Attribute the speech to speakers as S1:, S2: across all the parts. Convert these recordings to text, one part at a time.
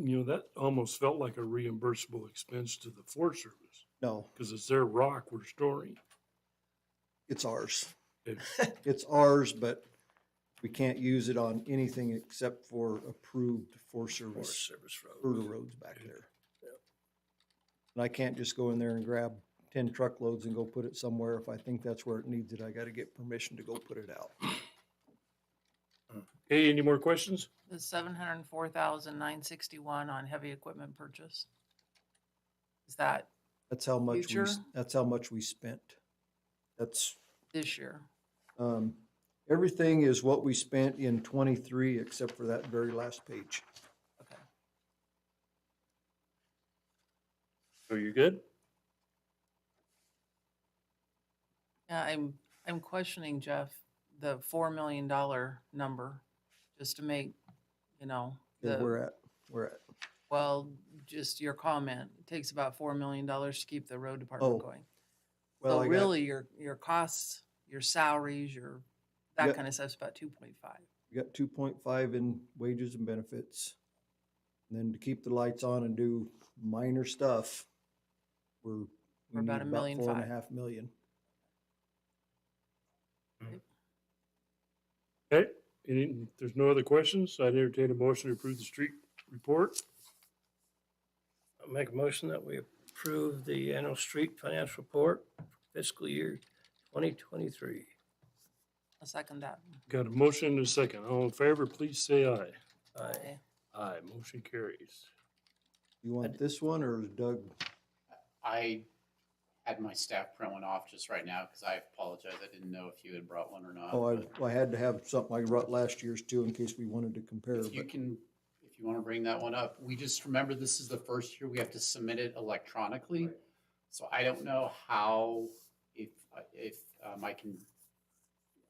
S1: you know, that almost felt like a reimbursable expense to the Forest Service
S2: No,
S1: because it's their rock we're storing.
S2: it's ours.
S1: It-
S2: It's ours, but we can't use it on anything except for approved Forest Service
S3: Service
S2: for the roads back there. And I can't just go in there and grab ten truckloads and go put it somewhere. If I think that's where it needs it, I gotta get permission to go put it out.
S1: Hey, any more questions?
S4: The seven hundred and four thousand nine sixty-one on heavy equipment purchase? Is that
S2: That's how much we, s-
S4: Future?
S2: that's how much we spent. That's,
S4: this year?
S2: um, everything is what we spent in twenty-three except for that very last page.
S4: Okay.
S1: Are you good?
S4: Yeah, I'm, I'm questioning Jeff, the four million dollar number, just to make, you know,
S2: Okay,
S4: the,
S2: We're at, we're at.
S4: well, just your comment. It takes about four million dollars to keep the road
S2: Oh,
S4: department going.
S2: Well,
S4: So
S2: I got-
S4: really, your, your costs, your salaries, your,
S2: Yeah.
S4: that kind of stuff's about two point five.
S2: We got two point five in wages and benefits. And then to keep the lights on and do minor stuff, we're. we
S4: We're about
S2: need
S4: a million
S2: Four and a
S4: five.
S2: half million.
S1: Okay, any, if there's no other questions. I'd entertain a motion to approve the street report.
S3: I'll Make a motion that we approve the annual street financial report fiscal year twenty twenty-three.
S4: I second that.
S1: Got a motion and a second. All in favor, please say aye.
S3: Aye.
S1: Aye, motion carries.
S2: You want this one or is Doug?
S5: I had my staff print one off just right now because I apologize. I didn't know if you had brought one or not.
S2: Oh,
S5: but
S2: I, I had to have something I brought last year's too in case we wanted to compare,
S5: If you
S2: but
S5: can, if you want to bring that one up, we just remember this is the first year we have to submit it electronically. So I don't know how, if, if um, I can,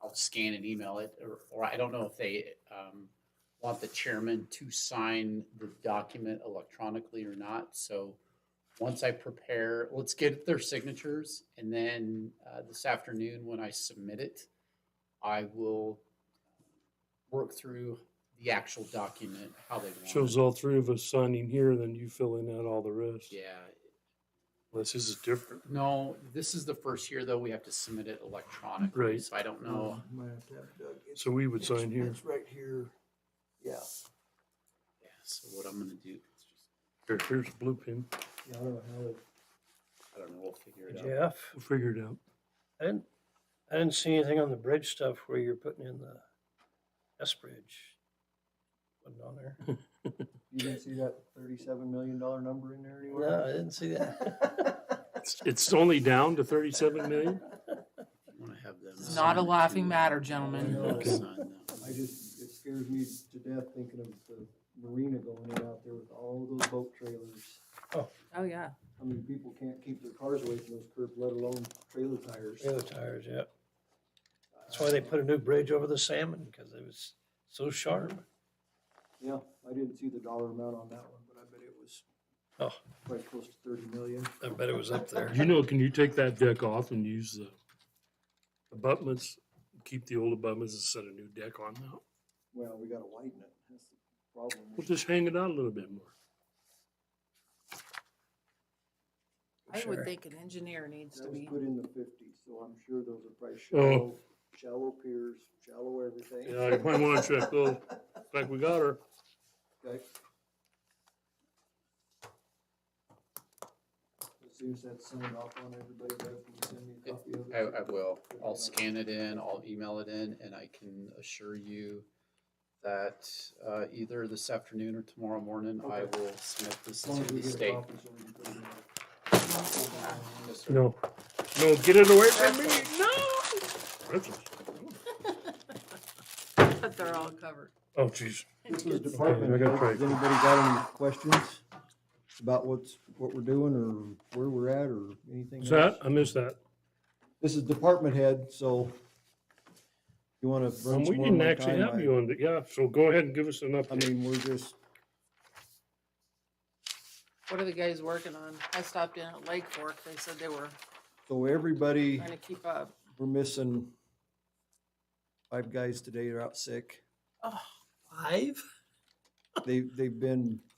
S5: I'll scan and email it, or, or I don't know if they um, want the chairman to sign the document electronically or not. So once I prepare, let's get their signatures, and then uh, this afternoon, when I submit it, I will work through the actual document, how they want
S1: Shows
S5: it.
S1: all three of us signing here, then you filling out all the rest.
S5: Yeah,
S1: Unless this is different.
S5: No, this is the first year though, we have to submit it electronically.
S1: Right. Uh-huh.
S5: So I don't know.
S2: Might have to have Doug.
S1: So we would sign here.
S2: right here. Yeah.
S5: Yeah, so what I'm gonna do, is just-
S1: Here, Here's a blue pin.
S2: Yeah, I don't know how it.
S5: I don't know, we'll figure it out.
S3: Jeff,
S1: We'll figure it out.
S3: I didn't, I didn't see anything on the bridge stuff where you're putting in the S Bridge. Wasn't on there.
S2: You didn't see that thirty-seven million dollar number in there
S3: No,
S2: anywhere?
S3: I didn't see that.
S1: It's, it's only down to thirty-seven million?
S5: If you wanna have them
S4: It's not a
S5: sign it,
S4: laughing
S5: too.
S4: matter,
S5: I'll
S4: gentlemen.
S5: sign that
S2: I
S5: one.
S2: just, it scares me to death thinking of the marina going in out there with all those boat trailers.
S4: Oh, yeah.
S2: I mean, people can't keep their cars away from those curbs, let alone trailer tires.
S3: Trailer tires, yeah. That's why they put a new bridge over the salmon, because it was so sharp.
S2: Yeah, I didn't see the dollar amount on that one, but I bet it was
S3: Oh,
S2: quite close to thirty million.
S3: I bet it was up there.
S1: You know, can you take that deck off and use the abutments? Keep the old abutments and set a new deck on now?
S2: Well, we gotta widen it, that's the problem.
S1: We'll just hang it out a little bit more.
S4: I would
S3: Sure.
S4: think an engineer needs to
S2: That was
S4: be.
S2: put in the fifties, so I'm sure those are probably shallow,
S1: Oh.
S2: shallow piers, shallow everything.
S1: Yeah, I might wanna check those. Like we got her.
S2: Okay. As soon as that's signed off on, everybody does, can you send me a copy of it?
S5: I, I will. I'll scan it in, I'll email it in, and I can assure you that, uh, either this afternoon or tomorrow morning, I
S2: Okay.
S5: will submit this
S2: As long as
S5: to
S2: we
S5: the
S2: get a
S5: state.
S2: copy, so we can put it in. there.
S5: Yes, sir.
S1: No. No, get it away from me. No. Pretzels.
S4: But they're all covered.
S1: Oh, jeez.
S2: This was
S4: It's-
S2: department,
S1: I
S2: heads.
S1: gotta try.
S2: has anybody got any questions about what's, what we're doing or where we're at or anything
S1: Is
S2: else?
S1: that? I missed that.
S2: This is department head, so you wanna
S1: Um,
S2: run
S1: we
S2: some more of
S1: didn't
S2: my
S1: actually
S2: time?
S1: have you
S2: I-
S1: on the, yeah, so go ahead and give us an
S2: I
S1: update.
S2: mean, we're just,
S4: What are the guys working on? I stopped in at Lake Fork. They said they were
S2: so everybody,
S4: trying to keep up.
S2: we're missing five guys today are out sick.
S3: Five?
S2: They, they've been